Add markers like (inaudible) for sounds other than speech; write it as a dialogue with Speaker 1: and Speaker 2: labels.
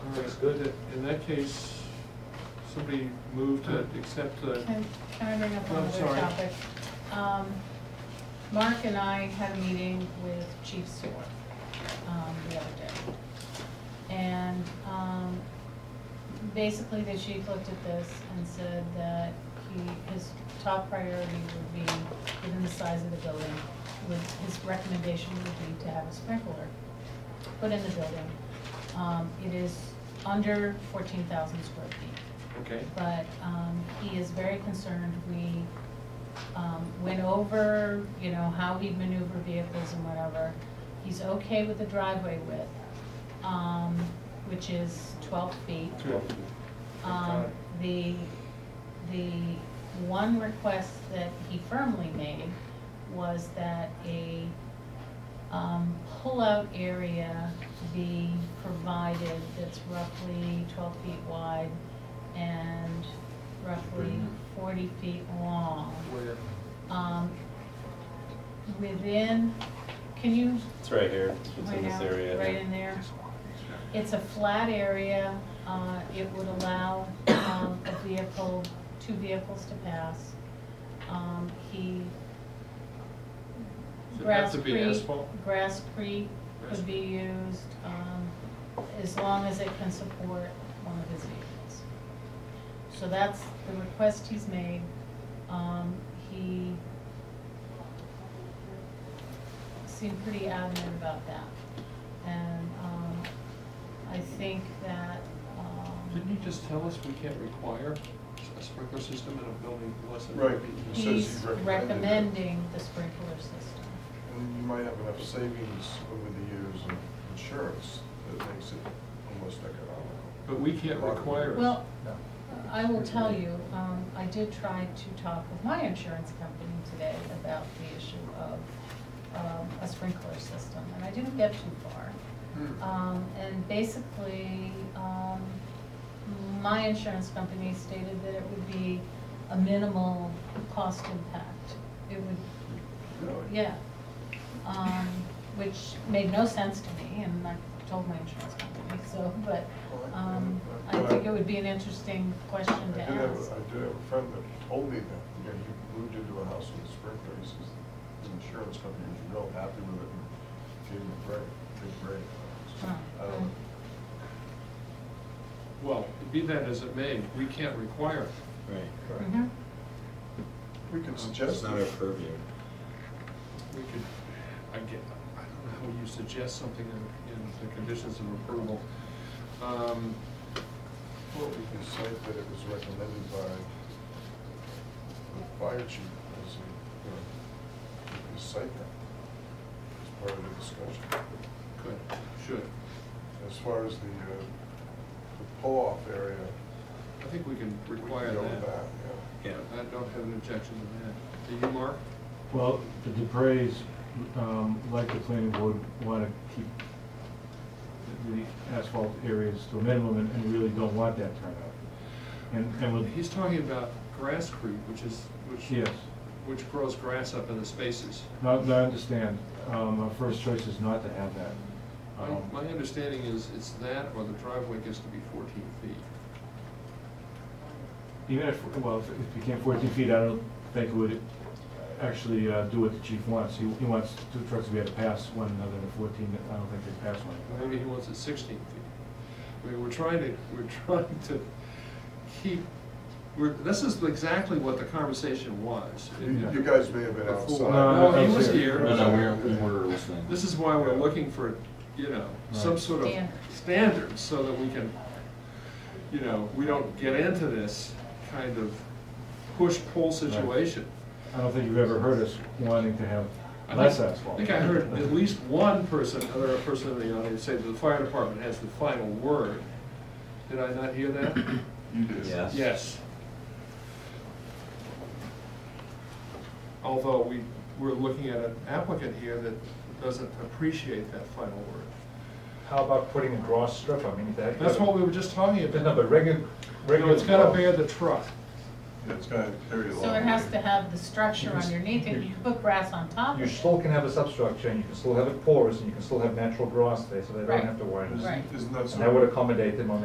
Speaker 1: That's good. In that case, somebody moved to accept the,
Speaker 2: Can can I bring up
Speaker 1: I'm
Speaker 2: another
Speaker 1: sorry.
Speaker 2: topic? Um, Mark and I had a meeting with Chief Stewart um, the other day. And um, basically, the chief looked at this and said that he, his top priority would be, given the size of the building, would, his recommendation would be to have a sprinkler put in the building. Um, It is under fourteen thousand square feet
Speaker 1: okay,
Speaker 2: but um, he is very concerned. We um, went over, you know, how he'd maneuver vehicles and whatever. He's okay with the driveway width, um, which is twelve feet.
Speaker 1: good.
Speaker 2: Um,
Speaker 1: Okay.
Speaker 2: The, the one request that he firmly made was that a um, pull-out area be provided that's roughly twelve feet wide and roughly forty feet long.
Speaker 1: Where?
Speaker 2: Um, Within, can you
Speaker 3: It's right here, it's in
Speaker 2: point
Speaker 3: this
Speaker 2: out,
Speaker 3: area.
Speaker 2: right in there? It's a flat area, uh, it would allow, um, a vehicle, two vehicles to pass. Um, he.
Speaker 1: Does it have
Speaker 2: Grass
Speaker 1: to be
Speaker 2: Creek,
Speaker 1: asphalt?
Speaker 2: Grass Creek
Speaker 1: Grass-
Speaker 2: could be used, um, as long as it can support one of his vehicles. So that's the request he's made, um, he seemed pretty adamant about that. And, um, I think that,
Speaker 1: Didn't you
Speaker 2: um,
Speaker 1: just tell us we can't require a sprinkler system in a building unless it?
Speaker 4: Right. It says he's
Speaker 2: he's
Speaker 4: recommended it.
Speaker 2: recommending the sprinkler system.
Speaker 4: And you might have enough savings over the years in insurance that makes it almost economical.
Speaker 1: But we can't require it.
Speaker 2: Well, I will tell you, um, I did try to talk with my insurance company today about the issue of, um, a sprinkler system, and I didn't get too far.
Speaker 1: Hmm.
Speaker 2: Um, and basically, um, my insurance company stated that it would be a minimal cost impact. It would,
Speaker 4: Really?
Speaker 2: yeah, um, which made no sense to me, and I told my insurance company, so, but, um, I think it would be an interesting
Speaker 4: I
Speaker 2: question
Speaker 4: do
Speaker 2: to
Speaker 4: have,
Speaker 2: ask.
Speaker 4: a- I do have a friend that told me that, you know, he moved into a house with a sprinkler, he says, the insurance company was real happy with it and gave him a break, big break. Um, So, I don't know.
Speaker 1: Well, be that as it may, we can't require it.
Speaker 3: Right.
Speaker 2: Mhm.
Speaker 4: We can suggest
Speaker 3: It's not our
Speaker 4: it.
Speaker 3: purview.
Speaker 1: We could, I get, I don't know how you suggest something in, in the conditions of approval. Um,
Speaker 4: Well, we can cite that it was recommended by the fire chief, as a, you know, we can cite that as part of the discussion.
Speaker 1: Could, should.
Speaker 4: As far as the, uh, the pull-off area.
Speaker 1: I think we can
Speaker 4: we can
Speaker 1: require
Speaker 4: go
Speaker 1: that.
Speaker 4: with yeah.
Speaker 3: Yeah.
Speaker 1: I don't have an objection to that. Do you, Mark?
Speaker 5: Well, the Dupreys, um, like the planning board, want to keep the asphalt areas to a minimum and- and really don't want that turnout. And, and with,
Speaker 1: He's talking about grass creep, which is, which.
Speaker 5: yes,
Speaker 1: Which grows grass up in the spaces.
Speaker 5: no, no, I understand. Um, Our first choice is not to have that.
Speaker 1: My,
Speaker 5: Um,
Speaker 1: my understanding is it's that or the driveway gets to be fourteen feet.
Speaker 5: Even if, well, if it became 14 feet, I don't think it would actually uh, do what the chief wants. He he wants two trucks to be able to pass one another at 14. I don't think they pass one another.
Speaker 1: Maybe he wants it sixteen feet. I mean, we're trying to, we're (laughs) trying to keep, we're, this is exactly what the conversation was.
Speaker 4: You you guys may have been outside.
Speaker 1: Before-
Speaker 5: No,
Speaker 1: No, he was
Speaker 5: no,
Speaker 1: here.
Speaker 3: No, no, we're, we were listening.
Speaker 1: This is why we're looking for, you know, some
Speaker 5: Right.
Speaker 1: sort of
Speaker 2: Standard.
Speaker 1: standards so that we can, you know, we don't get into this kind of push-pull situation.
Speaker 5: I don't think you've ever heard us wanting to have
Speaker 1: I
Speaker 5: less
Speaker 1: think-
Speaker 5: asphalt.
Speaker 1: I think I heard at least one person, other person in the audience say that the fire department has the final word. Did I not hear that?
Speaker 4: You did.
Speaker 3: Yes.
Speaker 1: Yes. Although we, we're looking at an applicant here that doesn't appreciate that final word.
Speaker 6: How about putting a grass strip, I mean, that.
Speaker 1: That's what we were just talking about.
Speaker 6: No, but regular,
Speaker 1: No,
Speaker 6: regular.
Speaker 1: it's gotta
Speaker 6: grass.
Speaker 1: bear the truck.
Speaker 4: Yeah, It's gonna carry a long.
Speaker 2: So it has
Speaker 4: way.
Speaker 2: to have the structure underneath it, you put grass on top
Speaker 6: You
Speaker 2: of
Speaker 6: still
Speaker 2: it.
Speaker 6: can have a substructure, and you can still have it porous, and you can still have natural grass there, so they
Speaker 2: Right.
Speaker 6: don't have to worry.
Speaker 2: Right.
Speaker 4: Isn't that so?
Speaker 6: And that would accommodate them on